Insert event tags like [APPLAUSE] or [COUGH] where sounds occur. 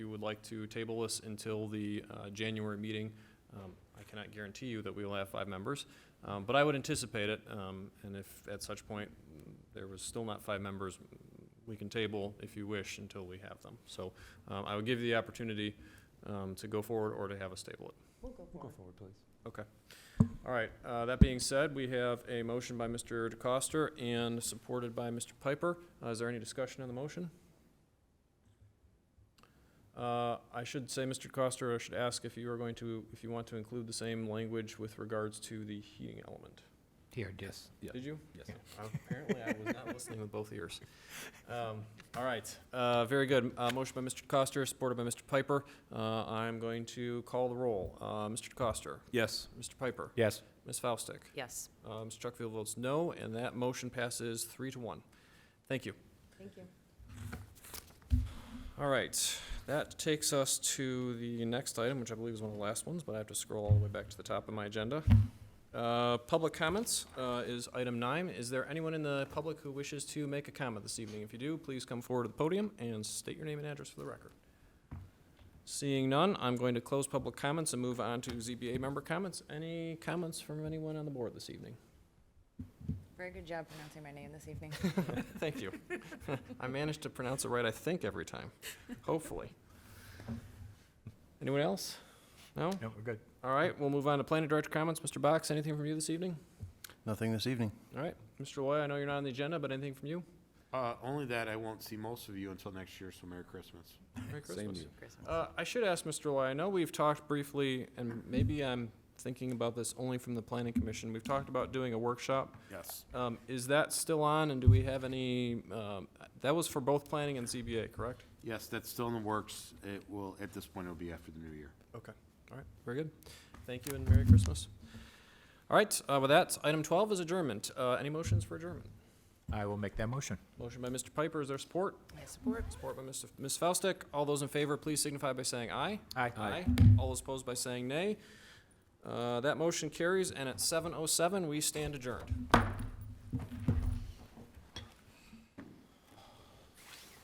would like to table this until the uh, January meeting, um, I cannot guarantee you that we will have five members, um, but I would anticipate it. um, And if at such point mm, there was still not five members, mm, we can table if you wish until we have them. So um, I would give you the opportunity um, to go forward or to have us table it. We'll go Go for it. forward, please. Okay. All right, uh, that being said, we have a motion by Mr. DeCoster and supported by Mr. Piper. Uh, Is there any discussion on the motion? Uh, I should say, Mr. DeCoster, I should ask if you are going to, if you want to include the same language with regards to the heating element. Here, yes. Did you? Yes. Uh, Apparently, I was not listening with both ears. Um, All right, uh, very good. Uh, Motion by Mr. DeCoster, supported by Mr. Piper. Uh, I'm going to call the roll. Uh, Mr. DeCoster? Yes. Mr. Piper? Yes. Ms. Faustick? Yes, Uh, Ms. Chuckfield votes no, and that motion passes three to one. Thank you. thank you. All right, that takes us to the next item, which I believe is one of the last ones, but I have to scroll all the way back to the top of my agenda. Uh, Public comments uh, is item nine. Is there anyone in the public who wishes to make a comment this evening? If you do, please come forward to the podium and state your name and address for the record. Seeing none, I'm going to close public comments and move on to ZBA member comments. Any comments from anyone on the board this evening? Very good job pronouncing my name this evening. [LAUGHS] Thank you. I managed to pronounce it right, I think, every time, hopefully. Anyone else? No? No, we're good. All right, we'll move on to planning director comments. Mr. Box, anything from you this evening? Nothing this evening. All right, Mr. Loy, I know you're not on the agenda, but anything from you? Uh, only that I won't see most of you until next year, so Merry Christmas. Merry Same Christmas. to you. Christmas. Uh, I should ask Mr. Loy, I know we've talked briefly, and maybe I'm thinking about this only from the planning commission. We've talked about doing a workshop. Yes. Um, Is that still on, and do we have any, um, that was for both planning and ZBA, correct? Yes, that's still in the works. It will, at this point, it'll be after the new year. Okay, all right, very good. Thank you and Merry Christmas. All right, uh, with that, item twelve is adjournment. Uh, any motions for adjournment? I will make that motion. Motion by Mr. Piper, is there support? I support. Support by Mr. Ms. Faustick. All those in favor, please signify by saying aye. Aye. All those opposed by saying nay. Uh, that motion carries, and at seven oh seven, we stand adjourned.